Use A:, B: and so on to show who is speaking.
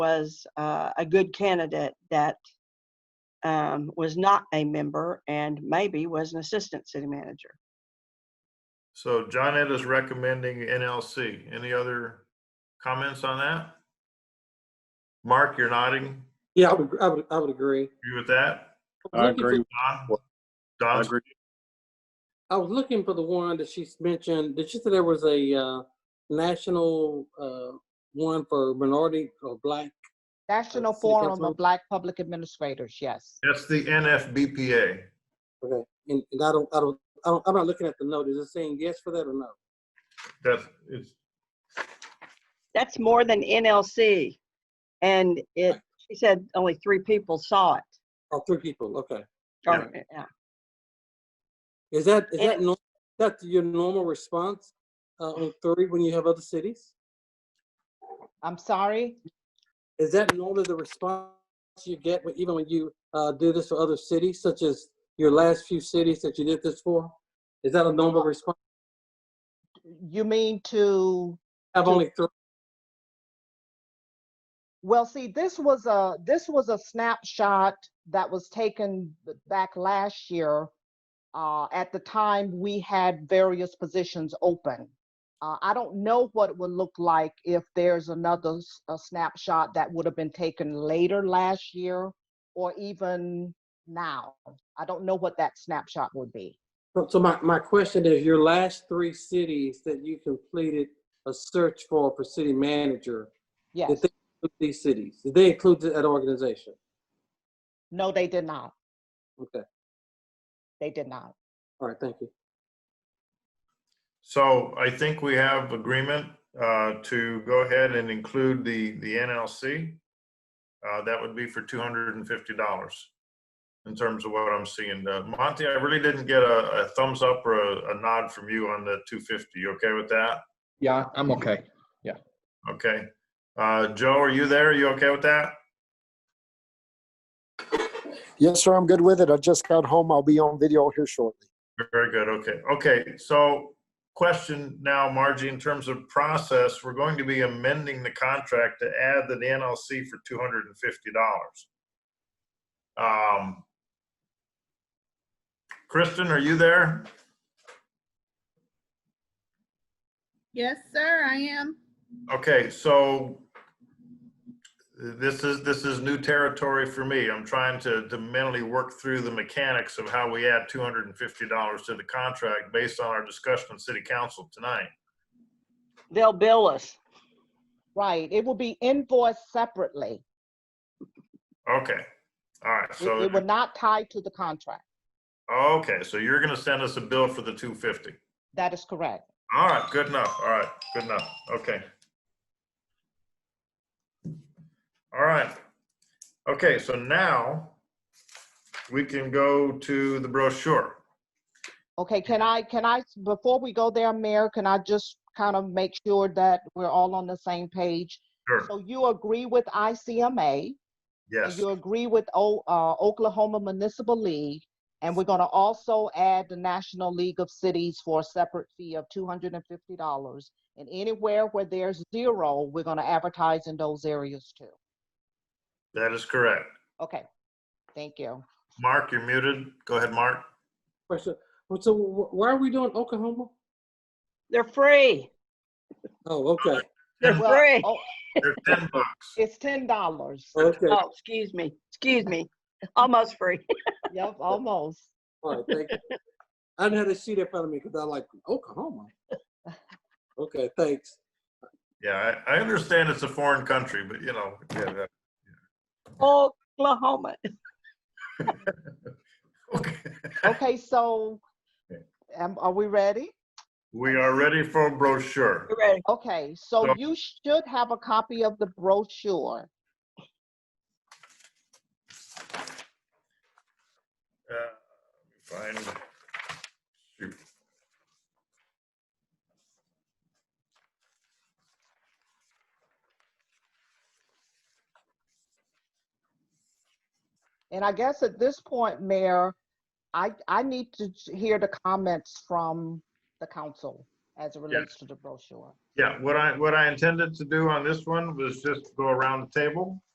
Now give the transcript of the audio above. A: was uh, a good candidate that um, was not a member and maybe was an assistant city manager.
B: So John Ed is recommending NLC. Any other comments on that? Mark, you're nodding.
C: Yeah, I would, I would, I would agree.
B: Agree with that?
D: I agree.
B: Don?
D: I
B: Don's,
D: agree.
C: I was looking for the one that she's mentioned. Did she say there was a uh, national uh, one for minority or black?
E: National
C: see,
E: Forum
C: Councilwoman.
E: of Black Public Administrators, yes.
B: that's the NFBPA.
C: Okay, and, and I don't, I don't, I don't, I'm not looking at the note. Is it saying yes for that or no?
B: That's, it's,
A: That's more than NLC. And it, she said only three people saw it.
C: Or Oh, three people? Okay.
A: Or- uh, yeah.
C: Is that is
A: And-
C: that nor- that's your normal response uh, on three when you have other cities?
E: I'm sorry?
C: Is that normally the response you get when, even when you uh, do this for other cities, such as your last few cities that you did this for? Is that a normal response?
E: You mean to,
C: Have only three.
E: well, see, this was a, this was a snapshot that was taken b- back last year. Uh, at the time, we had various positions open. Uh, I don't know what it would look like if there's another s- a snapshot that would have been taken later last year or even now. I don't know what that snapshot would be.
C: So- So my, my question is, your last three cities that you completed a search for for city manager,
E: Yes.
C: did they include these cities? Did they include that organization?
E: No, they did not.
C: Okay,
E: They did not.
C: all right, thank you.
B: so I think we have agreement, uh, to go ahead and include the, the NLC. Uh, that would be for two hundred and fifty dollars in terms of what I'm seeing. Uh, Monty, I really didn't get a, a thumbs up or a, a nod from you on the two fifty. You okay with that?
F: Yeah, I'm okay.
B: Okay. Uh, Joe, are you there? Are you okay with that?
G: Yes, sir, I'm good with it. I just got home. I'll be on video here shortly.
B: Very good. Okay. Okay. So question now, Margie, in terms of process, we're going to be amending the contract to add the NLC for $250. Um, Kristen, are you there?
H: Yes, sir, I am.
B: Okay, so this is, this is new territory for me. I'm trying to to mentally work through the mechanics of how we add two hundred and fifty dollars to the contract based on our discussion in city council tonight.
A: They'll bill us.
E: Right. It will be invoiced separately.
B: Okay, all right,
E: It- It
B: so,
E: will not tie to the contract.
B: okay, so you're gonna send us a bill for the two fifty.
E: That is correct.
B: All right, good enough, all right, good enough, okay. All right, okay, so now we can go to the brochure.
E: Okay, can I, can I, before we go there, Mayor, can I just kind of make sure that we're all on the same page?
B: Sure.
E: So you agree with ICMA, and
B: Yes.
E: you agree with O- uh, Oklahoma Municipal League, and we're going to also add the National League of Cities for a separate fee of $250. And anywhere where there's zero, we're going to advertise in those areas too.
B: That is correct.
E: Okay, thank you.
B: Mark, you're muted. Go ahead, Mark.
C: Question, well, so wh- why are we doing Oklahoma?
A: They're free.
C: Oh, okay,
A: They're
B: Ten-
E: Well,
A: free.
E: oh,
B: They're ten bucks.
E: It's ten dollars.
C: okay,
A: Oh, excuse me, excuse me. Almost free.
E: Yep, almost.
C: all right, thank you. I didn't have a sheet in front of me because I like Oklahoma. Okay, thanks.
B: Yeah, I, I understand it's a foreign country, but you know, yeah, that-
A: Oklahoma.
B: okay.
E: Okay, so, um, are we ready?
B: We are ready for a brochure.
A: You ready?
E: Okay, so
B: So-
E: you should have a copy of the brochure.
B: Uh, Find. shoot.
E: And I guess at this point, Mayor, I, I need to j- hear the comments from the council. as it relates to the brochure.
B: Yeah, what I, what I intended to do on this one was just go around the table